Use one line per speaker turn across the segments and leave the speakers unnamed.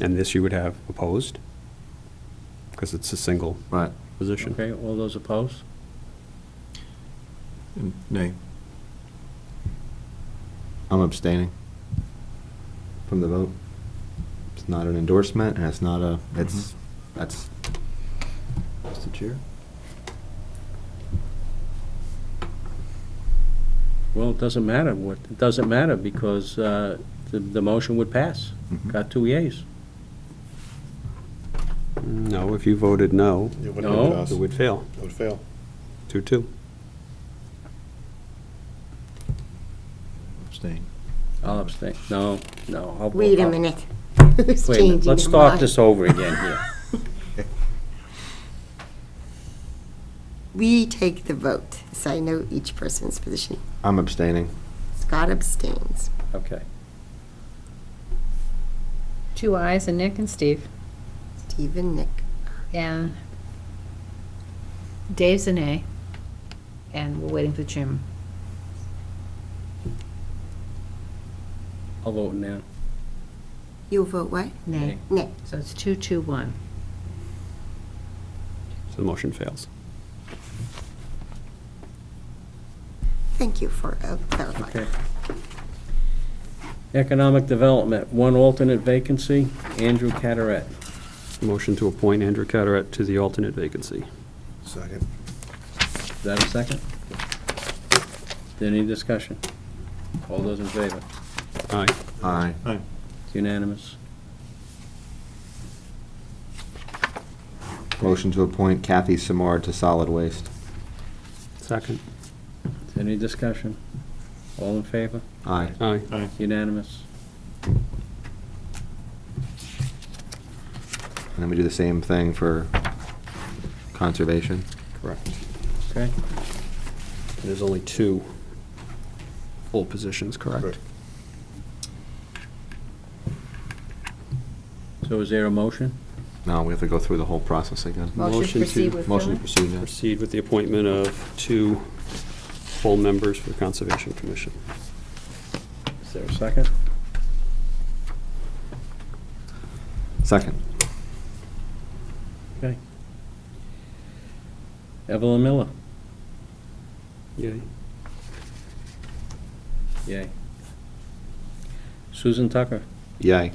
And this you would have opposed, because it's a single
Right.
position.
Okay, all those opposed?
Nay. I'm abstaining from the vote. It's not an endorsement, and it's not a, it's, that's. Mr. Chair?
Well, it doesn't matter what, it doesn't matter because uh, the, the motion would pass. Got two yeas.
No, if you voted no,
It would
No.
it would fail,
It would fail.
two-two.
Abstain.
I'll abstain. No, no. I'll vote-
Wait a
I'll-
minute. Who's
Wait a minute.
changing
Let's
their
start
mind?
this over again here.
We take the vote, so I know each person's position.
I'm abstaining.
Scott abstains.
Okay.
Two eyes and Nick and Steve.
Stephen, Nick.
And Dave's an A. And we're waiting for Jim.
I'll vote now.
You'll vote what?
Nay.
Nick.
So it's two, two, one.
So the motion fails.
Thank you for uh,
Okay.
clarifying.
Economic Development, one alternate vacancy, Andrew Cataret.
Motion to appoint Andrew Carteret to the alternate vacancy.
Second.
Is that a second? Any discussion? All those in favor?
Aye.
Aye.
It's unanimous.
Motion to appoint Kathy Samard to solid waste.
Second.
Any discussion? All in favor?
Aye.
Aye.
Unanimous.
And then we do the same thing for conservation.
Correct.
Okay?
There's only two full positions, correct?
Correct.
So is there a motion?
No, we have to go through the whole process again.
Motion
Motion
to
to-
proceed with
Motion to
Philip.
proceed, yes.
Proceed with the appointment of two full members for the Conservation Commission.
Is there a second?
Second.
Okay. Evelyn Miller.
Yay.
Yay. Susan Tucker.
Yay.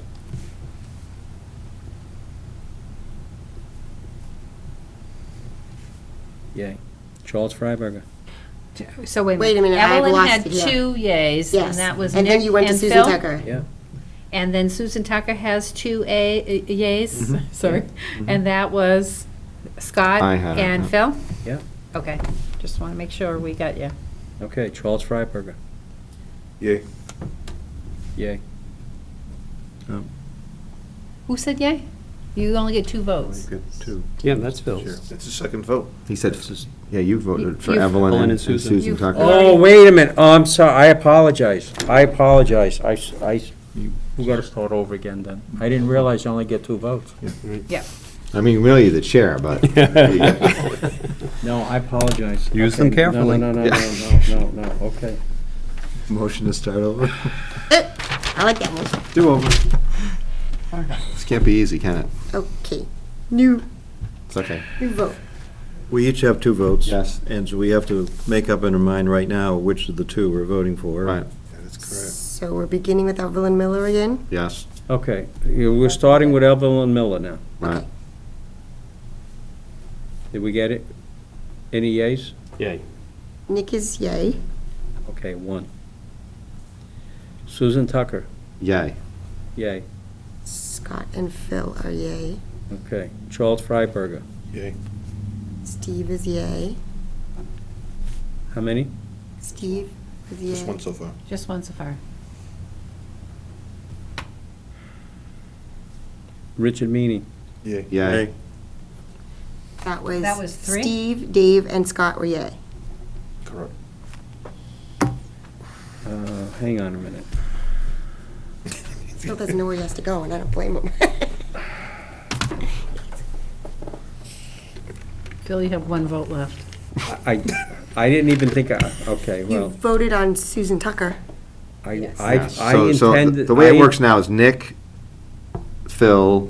Yay. Charles Freiberger.
So wait a minute.
Wait a minute, I have
Evelyn
lost
had
it here.
two yays, and
Yes.
that was Nick
And
and Phil.
then you went to Susan Tucker.
Yeah.
And then Susan Tucker has two a, uh, yays, sorry. And that was Scott
I had it,
and
yeah.
Phil?
Yeah.
Okay, just want to make sure we got you.
Okay, Charles Freiberger.
Yay.
Yay.
Who said yay? You only get two votes.
Good, too.
Yeah, that's
Sure.
Phil's.
It's the second vote.
He said,
That's just-
yeah, you voted
You-
for
you-
Evelyn
Evelyn and
and
and
Susan.
Susan
You-
Tucker.
Oh, wait a minute. Oh, I'm sorry. I apologize. I apologize. I, s- I s- we gotta start over again then. I didn't realize you only get two votes.
Yeah.
I mean, really, you're the chair, but.
No, I apologize.
Use
Okay,
them carefully.
No, no, no, no, no, no, no, okay.
Motion to start over?
I like that one.
Do over. This can't be easy, can it?
Okay. New,
It's okay.
new vote.
We each have two votes.
Yes.
And so we have to make up in our mind right now which of the two we're voting for.
Right,
That is correct.
So we're beginning with Evelyn Miller again?
yes,
Okay, you- we're starting with Evelyn Miller now.
right.
Did we get it? Any yeas?
Yay.
Nick is yay.
Okay, one. Susan Tucker,
Yay.
yay.
Scott and Phil are yay.
Okay, Charles Freiberger,
Yay.
Steve is yay.
how many?
Steve is yay.
Just one so far.
Just one so far.
Richard Meany,
Yay.
Yay.
That was.
That was three?
Steve, Dave, and Scott were yay.
Correct.
uh, hang on a minute.
Phil doesn't know where he has to go, and I don't blame him.
Phil, you have one vote left.
I, I didn't even think, I- okay,
You
well,
voted on Susan Tucker.
I,
Yes.
I
Yes.
I
So- so the-
intended.
The way
I-
it works now is Nick, Phil,